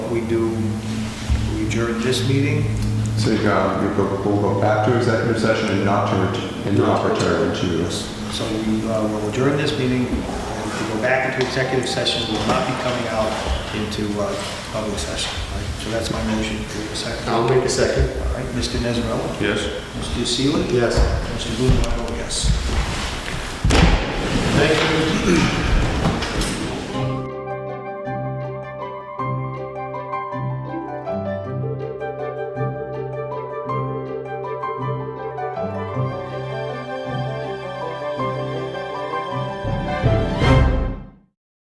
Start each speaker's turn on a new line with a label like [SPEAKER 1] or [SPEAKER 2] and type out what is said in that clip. [SPEAKER 1] we do, we adjourn this meeting.
[SPEAKER 2] So you go, you go, we'll go back to executive session and not to, ret- and not return to,
[SPEAKER 1] So we uh, will adjourn this meeting, and if we go back into executive session, we will not be coming out into uh, public session. All right, So that's my motion. Do we have a second?
[SPEAKER 3] I'll make a second.
[SPEAKER 1] All right, Mr. Nesrela?
[SPEAKER 3] Yes.
[SPEAKER 1] Mr. Seeley?
[SPEAKER 3] Yes.
[SPEAKER 1] Mr. Blumenauer, yes.
[SPEAKER 3] Thank you.